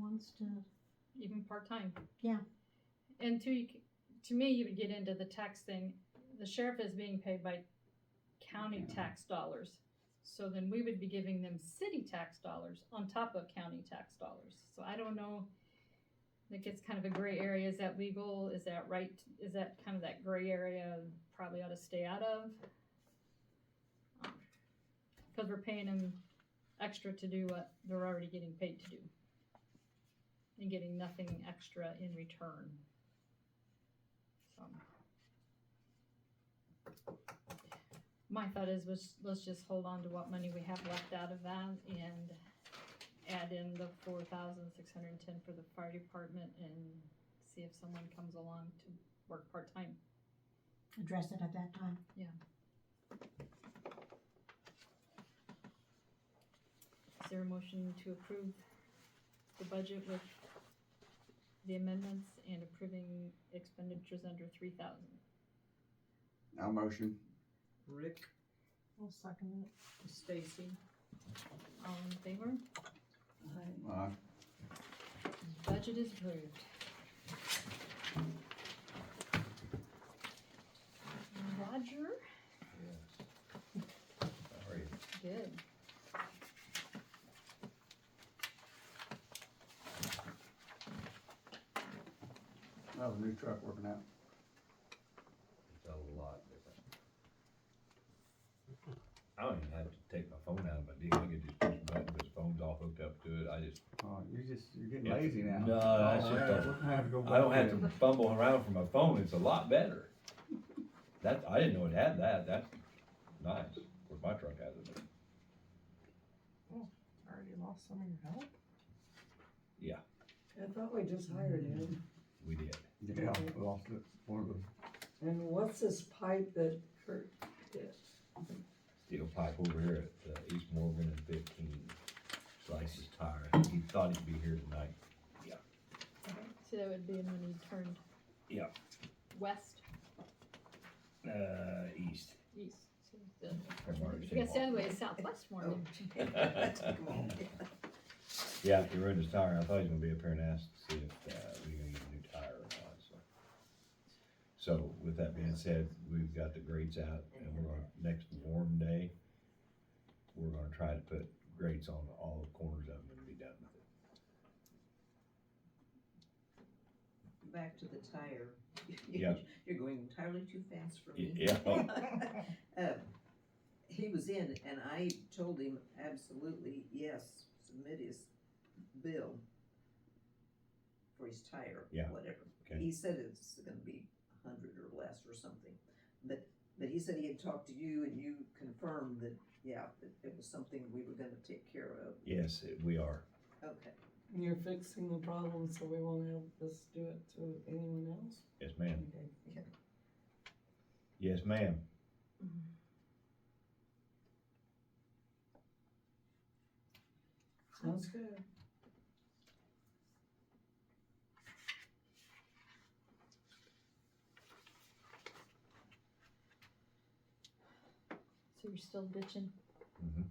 wants to, even part time. Yeah. And to to me, you would get into the tax thing. The sheriff is being paid by county tax dollars, so then we would be giving them city tax dollars on top of county tax dollars. So I don't know. It gets kind of a gray area. Is that legal? Is that right? Is that kind of that gray area? Probably ought to stay out of. Because we're paying them extra to do what they're already getting paid to do and getting nothing extra in return. So. My thought is, let's, let's just hold on to what money we have left out of that and add in the four thousand six hundred and ten for the fire department and see if someone comes along to work part-time. address it at that time. Is there a motion to approve the budget with the amendments and approving expenditures under three thousand? I'll motion. Rick, I'll second Stacy, All in favor? Uh, Budget is approved. Roger? Yes. How are you? Good. how's the new truck working out? It's a lot different. I don't even have to take my phone out of my deal, I can just push the button, this phone's all hooked up to it, I just, Oh, you're just, you're getting Yeah. lazy now. No, that's Oh, just yeah, a- we're gonna have to go I don't back have in. to fumble around for my phone, it's a lot better. That, I didn't know it had that, that's nice, of course, my truck has it, Already lost some of your help? I thought we just hired him. we did. Yeah, we lost it, one of the And what's this pipe that Kurt did? Steel pipe over here at uh, East Morgan and fifteen, slices his tire, I think he thought he'd be here tonight. So that would be when you turned. Yeah. West, Uh, east. east. So the- I've already I guess said the other way is southwest Morgan. Oh. Yeah, he ruined his tire. I thought he was gonna be up here and ask to see if, uh, we gonna get a new tire or not, so. So with that being said, we've got the grates out and we're gonna, next warm day, we're gonna try to put grates on all the corners of them and be done with it. back to the tire. Yeah. You're going entirely too fast for me. Yeah, Uh, He was in and I told him absolutely, yes, submit his bill for his tire, Yeah. whatever. okay, He said it's gonna be a hundred or less or something, but, but he said he had talked to you and you confirmed that, yeah, that it was something we were gonna take care of. yes, it- we are. Okay, You're fixing the problem, so we won't have us do it to anyone else? Yes, ma'am. Okay. Yes, ma'am. Sounds good. So you're still ditching? Mm-hmm.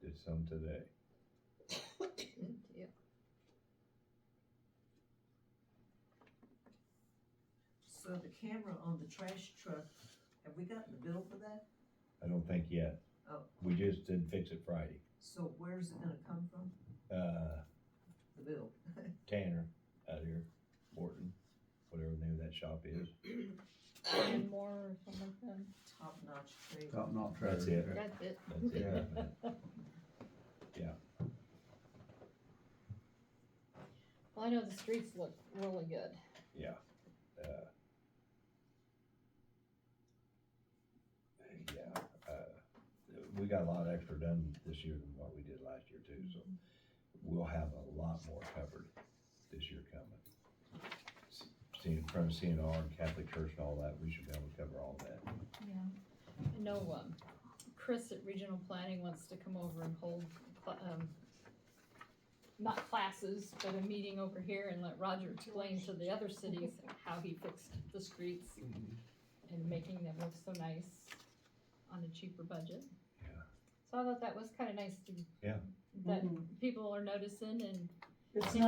Did some today. Yeah. so the camera on the trash truck, have we gotten the bill for that? I don't think yet. Oh. We just did fix it Friday. So where's it gonna come from, Uh, the bill? Tanner out here, Morton, whatever the name of that shop is. And more or something like that. top-notch trade. Top knot trailer. That's it. That's it. That's it. Well, I know the streets look really good. Yeah. Uh, yeah. Uh, we got a lot extra done this year than what we did last year too, so we'll have a lot more covered this year coming. S- Seeing from CNR and Catholic Church and all that, we should be able to cover all that. Yeah. I know, um, Chris at Regional Planning wants to come over and hold, cla- um, not classes, but a meeting over here and let Roger explain to the other cities how he fixed the streets and making them look so nice on a cheaper budget. Yeah. So I thought that was kinda nice to. Yeah. That people are noticing and Mm-hmm. It's Yeah. not